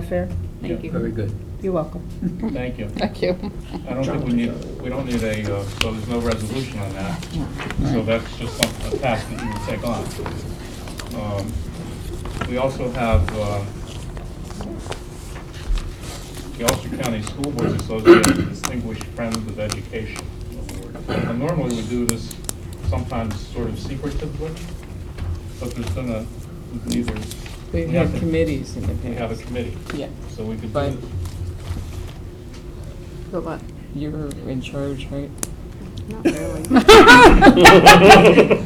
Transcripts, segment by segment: that fair? Thank Yeah, you. Very good. You're welcome. Thank you. Thank you. I don't think we need, we don't need a, uh, so there's no resolution on that. So that's just some- a task that you can take on. Um, We also have uh, the Ulster County School Boards Association Distinguished Friends of Education Award. Now, Normally, we do this sometimes sort of secretively, but there's been a, neither. We've we had have to- committees in the past. We have a committee, Yeah, so we could do But- this. But what? you're in charge, right? Not really.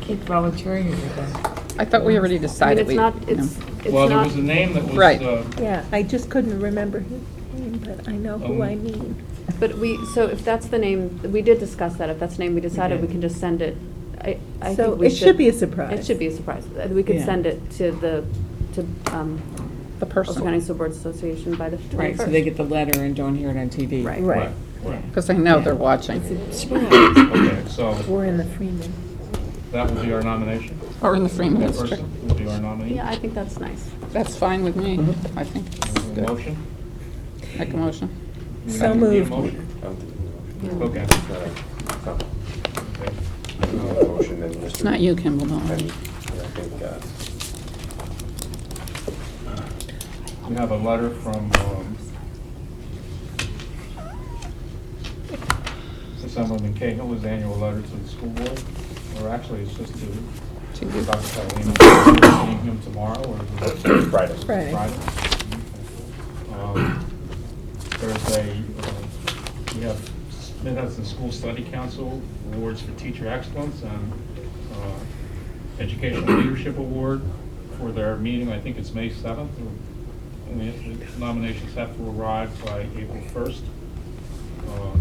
Keep volunteering every day. I thought we already I mean, decided it's we. not, it's, it's Well, there was a not, name that was. Right. uh, Yeah, I just couldn't remember his name, but I know who Um, I mean. but we, so if that's the name, we did discuss that, if that's the name we decided, we did. can just send it. I, I So think we it should. should be a surprise. It should be a surprise. Uh, We could Yeah. send it to the, to, um, The Ulster County person. School Boards Association by the twenty-first. Right, so they get the letter and don't hear it on TV. Right. Right. Right, Because they know they're watching. right. Okay, so We're in the Freeman. that will be our nomination. Or in the Freeman That District. person will be our nominee. Yeah, I think that's nice. That's fine with me, I think. Is there a Motion? Make a motion. Do we So need a moved. motion? Okay. Okay. It's not you, Kimball, don't worry. uh, We have a letter from, um, Sir Assemblyman Cahill, his annual letter to the school board, or actually it's just to Dr. To you. Catalina, seeing him tomorrow or Friday. Friday. Friday. Um, There's a, uh, we have Smithhudson School Study Council Awards for Teacher Excellence and uh, Educational Leadership Award for their meeting, I think it's May 7th. or- And the the nominations have to arrive by April 1st. Um,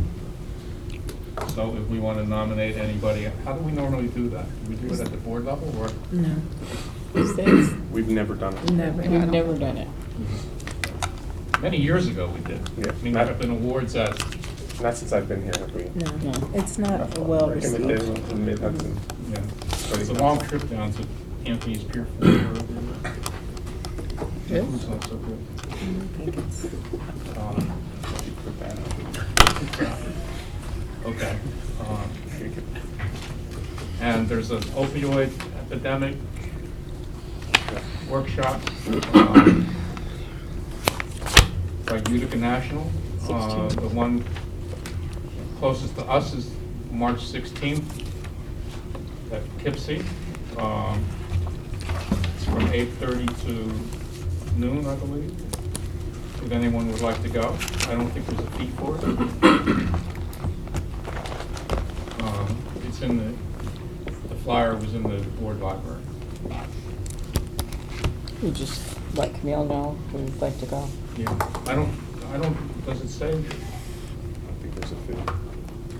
So if we want to nominate anybody, how do we normally do that? Do we do it at the board level or? No, We've never done it. never. We've never done it. Many years ago we did. Yeah. I mean, there have been awards at Not since I've been here, have we? No, No. it's not well received. received. Yeah, it's a long trip down to Anthony's Pier. Yes. Uh, Okay. um, And there's an opioid epidemic workshop um, by Utica National. Uh, The one closest to us is March 16th at Poughkeepsie. Um, It's from 8:30 to noon, I believe, if anyone would like to go. I don't think there's a fee for it. Um, It's in the, the flyer was in the board library. We just let Camille know who'd like to go. Yeah. I don't, I don't, does it say?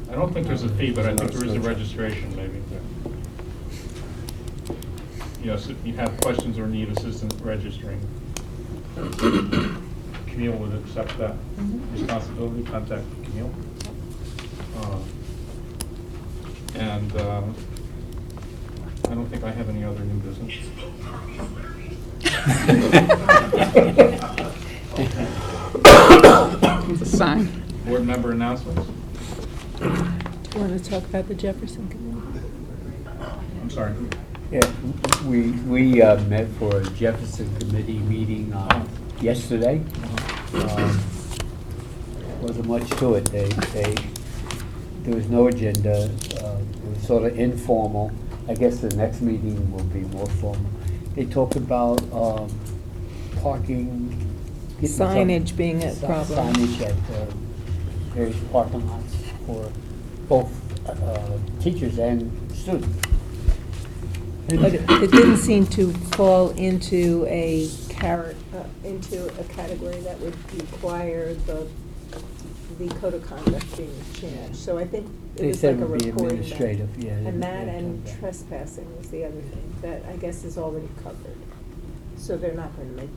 I don't think there's a fee, but I think there is a registration maybe. Yes, if you have questions or need assistance registering, Camille would accept that responsibility, contact Camille. Uh, And uh, I don't think I have any other new business. It's a sign. Board member announcements? Want to talk about the Jefferson Committee? I'm sorry. Yeah, we, we uh, met for a Jefferson Committee meeting uh, yesterday. Um, Wasn't much to it. They, they, there was no agenda. Uh, It was sort of informal. I guess the next meeting will be more formal. They talked about um, parking. getting some- Signage being a si- problem. Signage at uh, various parking lots for both uh, teachers and students. But it it didn't seem to fall into a carrot, uh, into a category that would require the, the code of conduct being changed. So I think it They was like said a it would be reporting. back. administrative, yeah. And they- that they and told that. trespassing was the other thing, that I guess is already covered. So they're not gonna make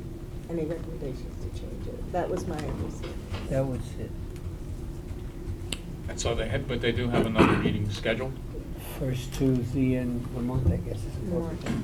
any recommendations to change it. That was my understanding. That was it, And so they had, but they do have another meeting scheduled? first Tuesday in the month, I guess. is the fourth. March.